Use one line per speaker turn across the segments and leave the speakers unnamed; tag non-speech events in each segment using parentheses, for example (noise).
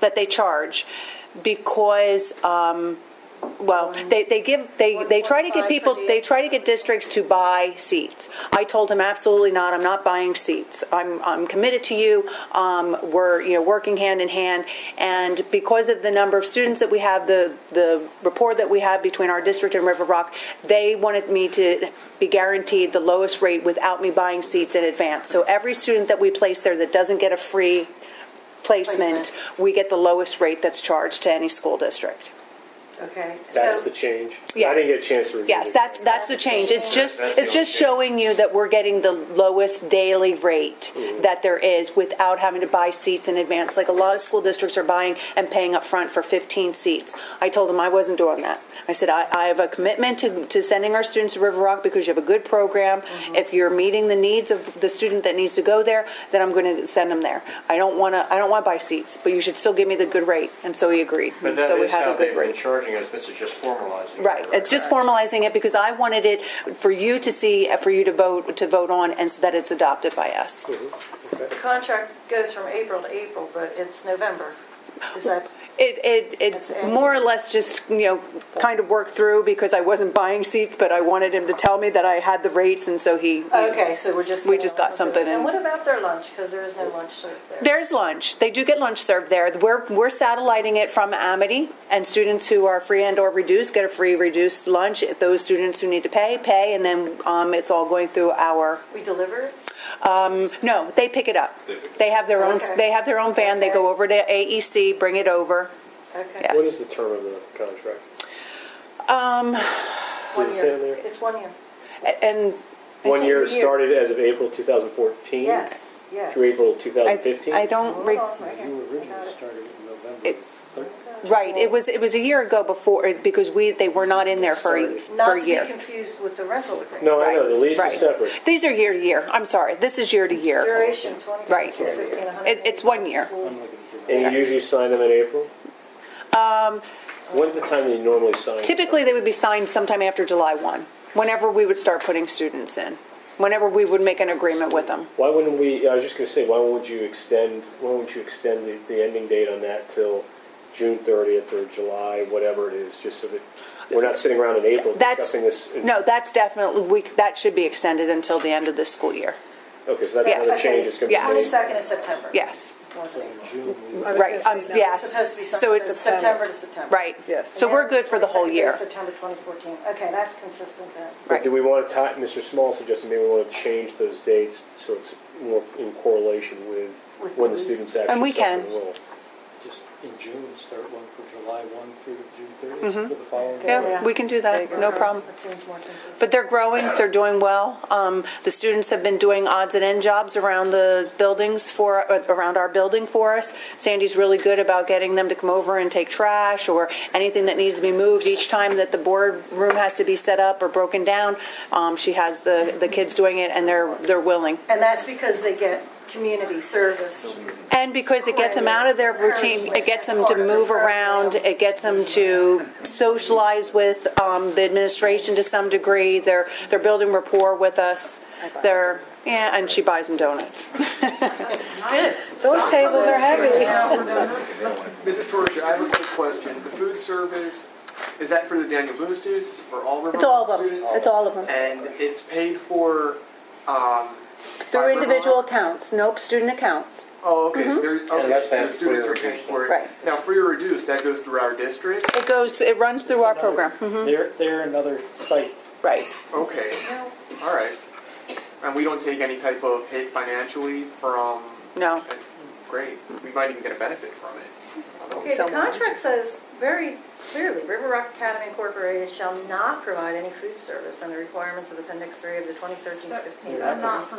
that they charge because um, well they, they give they they try to get
125
people
per
they
diem.
try to get districts to buy seats i told him absolutely not i'm not buying seats i'm i'm committed to you um, we're you know working hand in hand and because of the number of students that we have the the rapport that we have between our district and river rock they wanted me to be guaranteed the lowest rate without me buying seats in advance so every student that we place there that doesn't get a free placement, we get the lowest rate that's charged to any school district.
Okay.
That's
so,
the change. I
Yes.
didn't get a chance to review.
Yes,
it.
that's that's the change. It's just
That's the
it's just
only change.
showing you that we're getting the lowest daily rate
Mm-hmm.
that there is without having to buy seats in advance. Like a lot of school districts are buying and paying up front for 15 seats. I told them I wasn't doing that. I said I, I have a commitment to, to sending our students to River Rock because you have a good program.
Mm-hmm.
If you're meeting the needs of the student that needs to go there, then I'm going to send them there. I don't want to I don't want to buy seats, but you should still give me the good rate. And so he agreed.
But that
so we
is
have
how
a good
they've
rate.
been charging us, this is just formalizing. it.
Right. It's just
Correct.
formalizing it because I wanted it for you to see, uh, for you to vote, to vote on, and so that it's adopted by us.
the contract goes from April to April, but it's November. Is
(laughs)
that
It, it,
That's
it
it.
more or less just, you know, kind of worked through because I wasn't buying seats, but I wanted him to tell me that I had the rates, and so he.
okay? So we're just
We just got something in.
And what about their lunch? Because there is no lunch served there.
There's lunch. They do get lunch served there. We're, we're satelliting it from Amity, and students who are free and or reduced get a free reduced lunch. Those students who need to pay, pay, and then um, it's all going through our
we deliver it.
No, they pick it up.
They pick it up.
They have their own.
Okay.
They have their own van. They
Okay.
go over to AEC, bring it over.
Okay.
Yeah.
What is the term of the contract? Um.
One
Does it say
year.
on there?
It's one year.
A- And
One year
It's a year.
started as of April 2014.
Yes. Yes.
Through April
I,
2015.
I
Hold
don't.
on,
Re-
right here.
You
I got
originally
it.
started in
It-
November third.
right. It was. It was a year ago before it- because we they were not in there for a,
Not
for a
to
year.
be confused with the rental agreement.
Oh, No, I know, the lease
Right.
is separate.
These are year to year. I'm sorry. This is year to year.
Duration twenty
Right.
to fifteen.
It- it's one year.
Um,
I'm looking at the-
And you usually sign them in April? Um. When's the time that you normally sign?
Typically, they would be signed sometime after July one. Whenever we would start putting students in, whenever we would make an agreement with them.
Why wouldn't we, I was just gonna say, why would you extend, why wouldn't you extend the, the ending date on that till June thirtieth or July, whatever it is, just so that we're not sitting around in April
That's
discussing this? in-
no. That's definitely we. That should be extended until the end of this school year.
Okay, so that's
yeah.
another change, it's gonna be.
Yeah.
made.
Twenty-second of September.
Yes.
Was it?
June, we-
I was
Right,
gonna
um,
say no.
yes.
It's supposed to be
So it's
something, September to September.
Right.
Yes.
So we're good for the whole year.
September 2014. Okay, that's consistent then.
But
Right.
do we want to tie, Mr. Small suggested maybe we want to change those dates so it's more in correlation with
With
when the
the
students actually.
And we
start to
can.
enroll.
just in June, start one for July 1 through June 30th for the following. year.
Mm-hmm. Yeah, we can do
There you
that,
go.
no problem.
That seems more consistent.
But they're growing, they're doing well. Um, the students have been doing odds and end jobs around the buildings for, uh, around our building for us. Sandy's really good about getting them to come over and take trash or anything that needs to be moved each time that the boardroom has to be set up or broken down. Um, she has the, the kids doing it and they're, they're willing.
And that's because they get community service.
And because it gets them out of their routine, it gets them to move around, it gets them to socialize with um, the administration to some degree. They're they're building rapport with us. They're yeah, and she buys them donuts.
Those tables are heavy.
Mrs. Torres, I have a quick question. The food service, is that for the Daniel Boone students? Is it for all River
It's all
Rock
of them.
students?
It's all of them.
And it's paid for, um... by
Through
River
individual
Rock?
accounts, nope, student accounts.
Oh, okay, so they're, okay,
that's-
so the
that's
students
free or
are paying
reduced.
for it.
Right.
Now, free or reduced, that goes through our district?
It goes, it runs through our program. Mhm.
They're, they're another site.
Right.
Okay, all right. And we don't take any type of hit financially from...
No.
Great. We might even get a benefit from it. I don't know.
Okay, the contract says very clearly, River Rock Academy Incorporated shall not provide any food service and the requirements of Appendix 3 of the 2013-15. guidelines.
They're
They're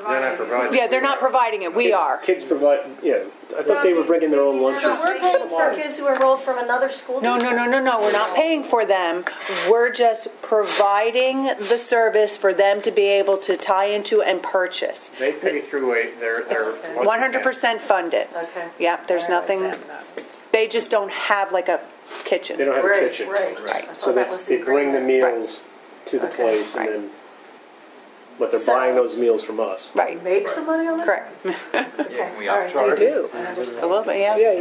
not providing.
Yeah, they're not providing it. We
Kids-
are.
Kids provide, yeah, I thought they were bringing their own lunches.
So we're paying for kids who enrolled from another school?
No, no,
district?
no, no, no. We're not paying for them. We're just providing the service for them to be able to tie into and purchase.
They pay through a, their, their.
One hundred percent funded.
Okay.
Yep, there's
All right,
nothing, they just don't have like a kitchen.
They don't have a
Right,
kitchen.
right.
Right.
I thought
So
that
that's,
was
they bring the
agreement.
meals to the
Okay.
place and
Right.
then, but they're
So-
buying those meals from us.
Right,
Make some money on it?
correct.
Yeah, we
All right.
upcharge.
do.
A little bit, yeah.